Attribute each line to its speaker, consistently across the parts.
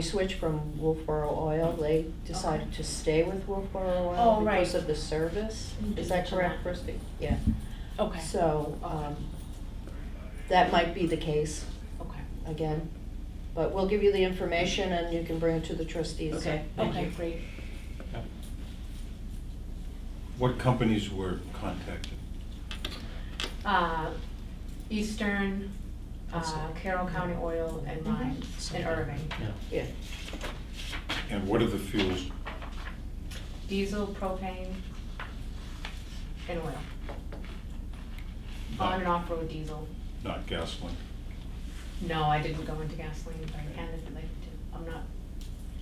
Speaker 1: We switched from Wolfboro Oil, they decided to stay with Wolfboro Oil
Speaker 2: Oh, right.
Speaker 1: because of the service. Is that correct, Christie? Yeah,
Speaker 2: Okay,
Speaker 1: so, um, that might be the case
Speaker 2: okay,
Speaker 1: again, but we'll give you the information and you can bring it to the trustees.
Speaker 3: Okay, thank
Speaker 2: okay,
Speaker 3: you.
Speaker 2: great.
Speaker 4: What companies were contacted?
Speaker 3: Uh, Eastern, uh,
Speaker 1: Awesome.
Speaker 3: Carroll County Oil and Mines in Irving.
Speaker 5: Yeah,
Speaker 1: Yeah,
Speaker 4: And what are the fuels?
Speaker 3: Diesel, propane, and oil. On and
Speaker 4: Not-
Speaker 3: off-road diesel.
Speaker 4: Not gasoline.
Speaker 3: No, I didn't go into gasoline, but I can if I'd like to. I'm not,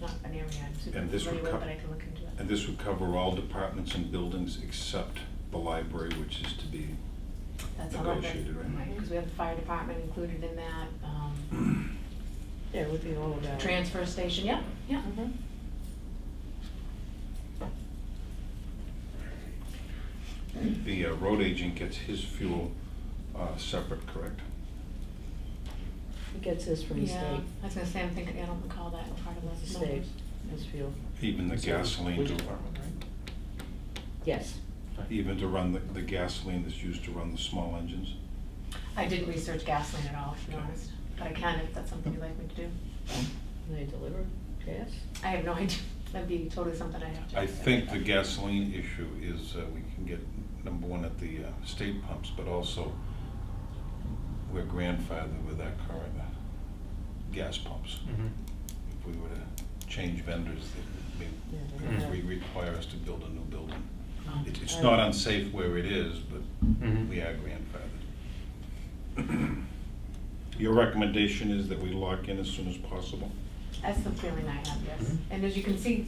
Speaker 3: not an area I'm super
Speaker 4: And this
Speaker 3: familiar
Speaker 4: would
Speaker 3: with,
Speaker 4: co-
Speaker 3: but I can look into it.
Speaker 4: And this would cover all departments and buildings except the library, which is to be,
Speaker 3: That's all I've got.
Speaker 4: negotiated, right?
Speaker 3: because we have the fire department included in that, um,
Speaker 1: yeah, it would be all about.
Speaker 3: transfer station, yeah, yeah.
Speaker 1: Mhm.
Speaker 4: the uh, road agent gets his fuel uh, separate, correct?
Speaker 1: He gets his from the
Speaker 3: Yeah,
Speaker 1: state,
Speaker 3: I was gonna say, I'm thinking, I don't recall that part of
Speaker 1: the
Speaker 3: those
Speaker 1: state,
Speaker 3: numbers.
Speaker 1: his fuel,
Speaker 4: Even the
Speaker 5: Is there a
Speaker 4: gasoline
Speaker 5: police
Speaker 4: to,
Speaker 5: department, right?
Speaker 1: yes.
Speaker 4: even to run the the gasoline that's used to run the small engines?
Speaker 3: I didn't research gasoline at all, to be honest, but I can if that's something you'd like me to do.
Speaker 1: And They deliver gas?
Speaker 3: I have no idea, that'd be totally something I'd have to.
Speaker 4: I think the gasoline issue is uh, we can get, number one, at the uh, state pumps, but also we're grandfathered with our current uh, gas pumps.
Speaker 5: Mhm.
Speaker 4: If we were to change vendors,
Speaker 1: Yeah,
Speaker 4: that
Speaker 1: they
Speaker 4: may,
Speaker 1: don't
Speaker 4: we
Speaker 1: have- Mm-hmm. Uh,
Speaker 4: require us to build a new building.
Speaker 3: Oh.
Speaker 4: It- It's not unsafe where it is, but
Speaker 5: Mhm.
Speaker 4: we are grandfathered. Your recommendation is that we lock in as soon as possible?
Speaker 3: That's the feeling I have, yes. And as you can see,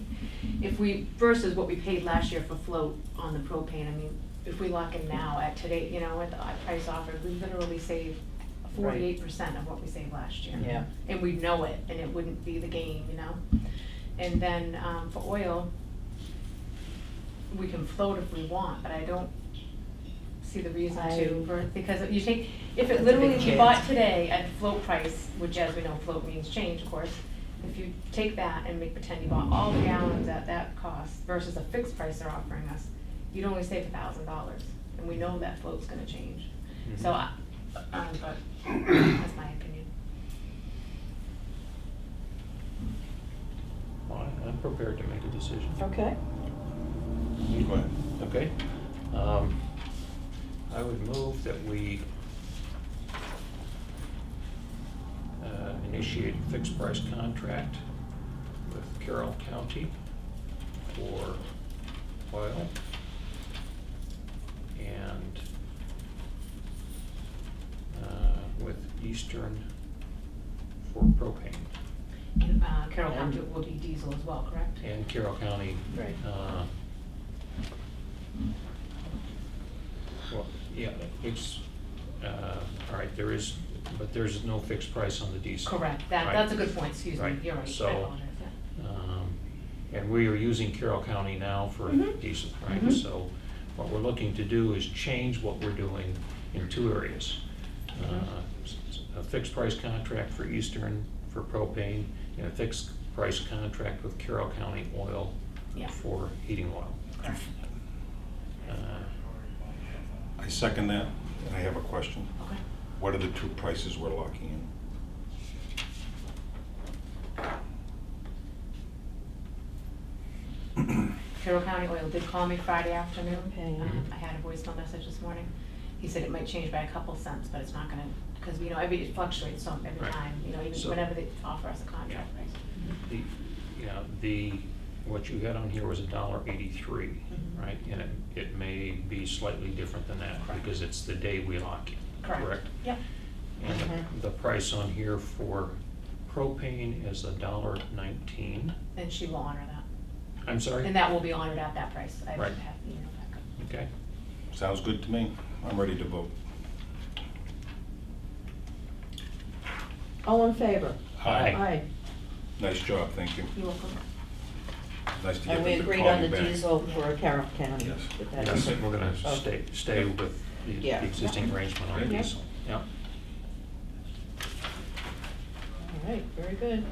Speaker 3: if we, versus what we paid last year for float on the propane, I mean, if we lock in now at today, you know, at the price offered, we literally save forty-eight percent of what we saved last year.
Speaker 1: Yeah.
Speaker 3: And we'd know it, and it wouldn't be the game, you know? And then, um, for oil, we can float if we want, but I don't see the reason
Speaker 1: I-
Speaker 3: to, ver- because if you take, if
Speaker 1: That's
Speaker 3: it
Speaker 1: a
Speaker 3: literally,
Speaker 1: big
Speaker 3: if you
Speaker 1: change.
Speaker 3: bought today at float price, which as we know, float means change, of course, if you take that and make pretend you bought all the gallons at that cost versus a fixed price they're offering us, you'd only save a thousand dollars, and we know that float's gonna change. So, I-
Speaker 5: Mm-hmm.
Speaker 3: um, but, that's my opinion.
Speaker 5: Well, I'm prepared to make a decision.
Speaker 1: Okay.
Speaker 4: Go ahead.
Speaker 5: Okay. Um, I would move that we uh, initiate a fixed price contract with Carroll County for oil. And uh, with Eastern for propane.
Speaker 3: And, uh, Carroll
Speaker 5: And-
Speaker 3: County will be diesel as well, correct?
Speaker 5: And Carroll County
Speaker 1: Right.
Speaker 5: uh, Well, yeah, it's, uh, all right, there is, but there's no fixed price on the diesel.
Speaker 3: Correct, that,
Speaker 5: Right.
Speaker 3: that's a good point, excuse me,
Speaker 5: Right,
Speaker 3: you're right, I
Speaker 5: so-
Speaker 3: apologize, yeah.
Speaker 5: Um, And we are using Carroll County now for
Speaker 3: Mhm.
Speaker 5: diesel, right?
Speaker 3: Mhm.
Speaker 5: So what we're looking to do is change what we're doing in two areas. Uh, s- s- A fixed price contract for Eastern for propane and a fixed price contract with Carroll County Oil
Speaker 3: Yeah.
Speaker 5: for heating oil. Uh,
Speaker 4: I second that, and I have a question.
Speaker 3: Okay.
Speaker 4: What are the two prices we're locking in?
Speaker 3: Carroll County Oil did call me Friday afternoon.
Speaker 1: Okay.
Speaker 3: Um, I had a voicemail message this morning. He said it might change by a couple cents, but it's not gonna, because, you know, every, it fluctuates some every
Speaker 5: Right.
Speaker 3: time, you know, even
Speaker 5: So-
Speaker 3: whenever they offer us a contract,
Speaker 5: Yeah.
Speaker 3: right?
Speaker 5: The, yeah, the, what you had on here was a dollar eighty-three,
Speaker 3: Mhm.
Speaker 5: right? And it, it may be slightly different than that,
Speaker 3: Correct.
Speaker 5: because it's the day we lock in, correct?
Speaker 3: Yep,
Speaker 5: And
Speaker 1: Mhm.
Speaker 5: the- the price on here for propane is a dollar nineteen,
Speaker 3: and she will honor that.
Speaker 5: I'm sorry?
Speaker 3: And that will be honored at that price. I have,
Speaker 5: Right.
Speaker 3: you know, backup.
Speaker 5: Okay,
Speaker 4: Sounds good to me. I'm ready to vote.
Speaker 1: All in favor?
Speaker 5: Aye.
Speaker 1: Aye.
Speaker 4: Nice job, thank you.
Speaker 3: You're welcome.
Speaker 4: Nice to get
Speaker 1: And we
Speaker 4: them to
Speaker 1: agreed
Speaker 4: call
Speaker 1: on
Speaker 4: you
Speaker 1: the
Speaker 4: back.
Speaker 1: diesel for Carroll County.
Speaker 4: Yes.
Speaker 1: But
Speaker 5: and
Speaker 1: that
Speaker 5: I
Speaker 1: is-
Speaker 5: think we're gonna
Speaker 4: Okay.
Speaker 5: stay, stay with the-
Speaker 1: Yeah.
Speaker 5: the existing arrangement on
Speaker 4: Okay.
Speaker 5: diesel. Yeah,
Speaker 1: All right, very good.